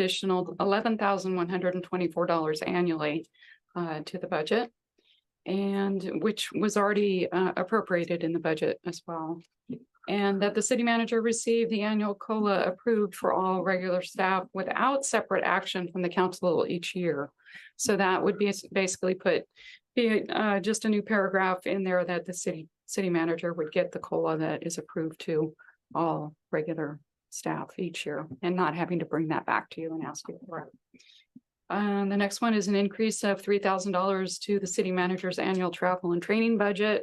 additional eleven thousand one hundred and twenty-four dollars annually uh, to the budget. And which was already uh, appropriated in the budget as well. And that the city manager received the annual COLA approved for all regular staff without separate action from the council each year. So that would be basically put, be uh, just a new paragraph in there that the city, city manager would get the COLA that is approved to all regular staff each year and not having to bring that back to you and ask you for it. Um, the next one is an increase of three thousand dollars to the city manager's annual travel and training budget.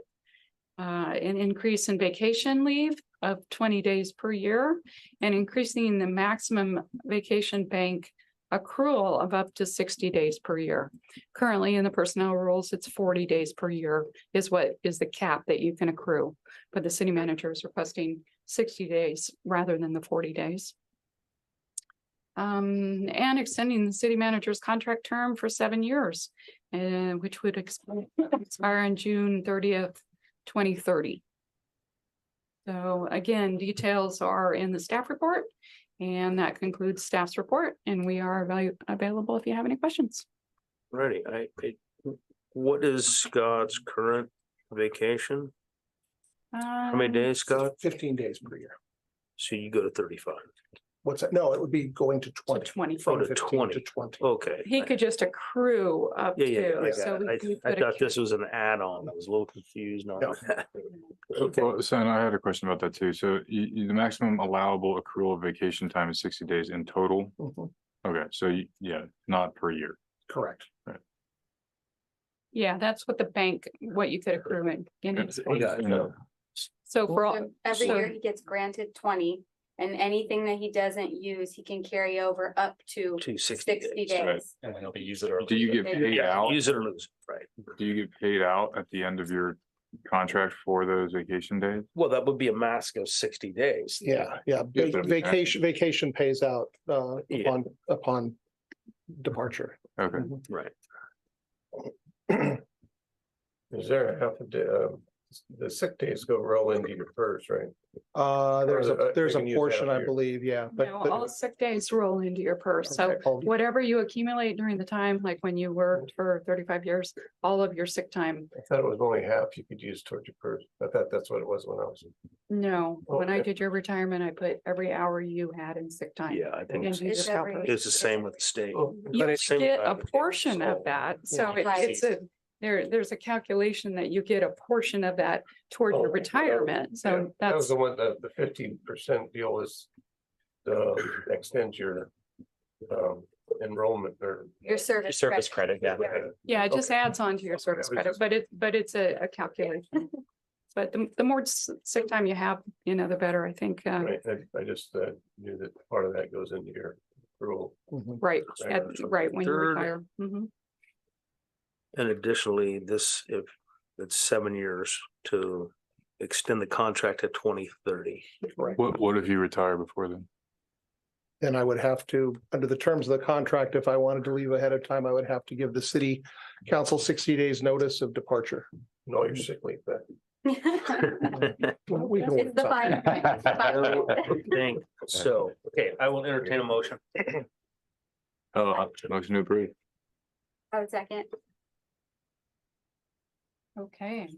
Uh, an increase in vacation leave of twenty days per year and increasing the maximum vacation bank accrual of up to sixty days per year. Currently, in the personnel rules, it's forty days per year is what is the cap that you can accrue. But the city manager is requesting sixty days rather than the forty days. Um, and extending the city manager's contract term for seven years, and which would expire expire on June thirtieth, twenty thirty. So again, details are in the staff report, and that concludes staff's report, and we are avail- available if you have any questions. Ready, I, I- what is Scott's current vacation? Um, How many days, Scott? Uh, Fifteen days per year. So you go to thirty-five. What's that? No, it would be going to To twenty. twenty. Oh, From to 15 20. To twenty. Oh. Okay. He could just accrue up Yeah, yeah, I to, so got we we it. I, I could thought this was an add-on. I was a little confused on No. that. Okay, Well, so and I had a question about that too. So you, you, the maximum allowable accrual of vacation time is sixty days in total. Mhm, Okay, so you, yeah, not per year. Correct. Yeah, that's what the bank, what you could accrue in. in Yeah, its so- bank. got it. yeah. So for all, So Every so- year he gets granted twenty, and anything that he doesn't use, he can carry over up to Two sixty sixty days. right. days. And we use it or. Do you get Yeah. paid Yeah, out? use it or lose it, right? Do you get paid out at the end of your contract for those vacation days? Well, that would be a mask of sixty days. Yeah, yeah. Yeah, but Va- I'm- Vacation, vacation pays out uh Yeah. upon upon departure. Okay, Right. Is there a half a day, uh, the sick days go roll into your first, right? Uh, there's Or, uh, a, they there's can a use portion, half I year. believe, yeah, but. no, but- all sick days roll into your purse. So okay, all- whatever you accumulate during the time, like when you worked for thirty-five years, all of your sick time. I thought it was only half you could use towards your first. I thought that's what it was when I was. No, when I Okay. did your retirement, I put every hour you had in sick time. Yeah, I think And it's you It's just every- calculate- it's the same with the state. Oh, I You thought it- same get a time it portion was of that, so sold. it- Right. it's a, there, there's a calculation that you get a portion of that toward Oh, your okay. retirement, yeah, so That that's, was the one, the, the fifteen percent deal is uh, extend your um, enrollment or. Your service. Service credit, yeah. Yeah. yeah, it just okay. adds on to your service was credit, just- but it, but it's a, a calculation. But the, the more s- sick time you have, you know, the better, I think, uh, Right, I, I just uh, knew that part of that goes into your rule. mhm. right, Sorry, at, that's what- right, when you Third- retire. Mhm. And additionally, this, if it's seven years to extend the contract to twenty thirty. Right. what, what if you retire before then? Then I would have to, under the terms of the contract, if I wanted to leave ahead of time, I would have to give the city council sixty days notice of departure. No, you're sick leave, but Well, we can It's the work fine. print, it's the I fine print. don't think So, okay, I will entertain a motion. Oh, uh, motion to approve. I would Oh, second. Okay,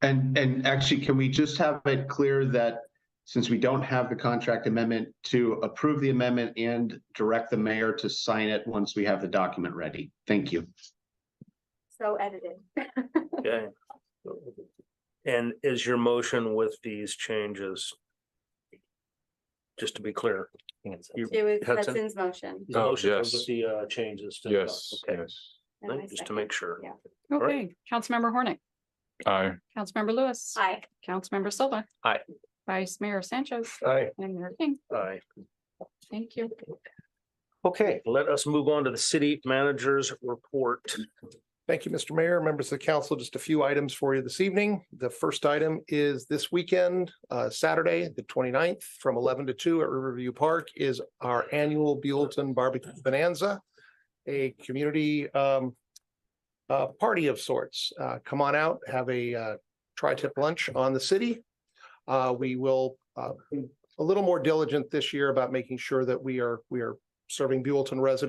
And, and actually, can we just have it clear that since we don't have the contract amendment, to approve the amendment and direct the mayor to sign it once we have the document ready? Thank you. So edited. Okay. And is your motion with these changes? Just to be clear. your It was Hudson? Hudson's motion. your Oh, motion yes. With the uh, changes. to the- Yes, Okay, yes. and I just to second. make sure. Yeah. right. okay, Councilmember Hornick, Aye. Councilmember Lewis. Aye. Councilmember Silva. Aye. Vice Mayor Sanchez I, and Mayor King, Aye. thank you. Okay, let us move on to the city manager's report. Thank you, Mr. Mayor, members of the council. Just a few items for you this evening. The first item is this weekend, uh, Saturday, the 29th, from eleven to two at Riverview Park is our annual Buellton Barbecue Bonanza, a community um, uh, party of sorts. Uh, Come on out, have a uh, tri-tip lunch on the city. Uh, We will uh, be a little more diligent this year about making sure that we are, we are serving Buellton residents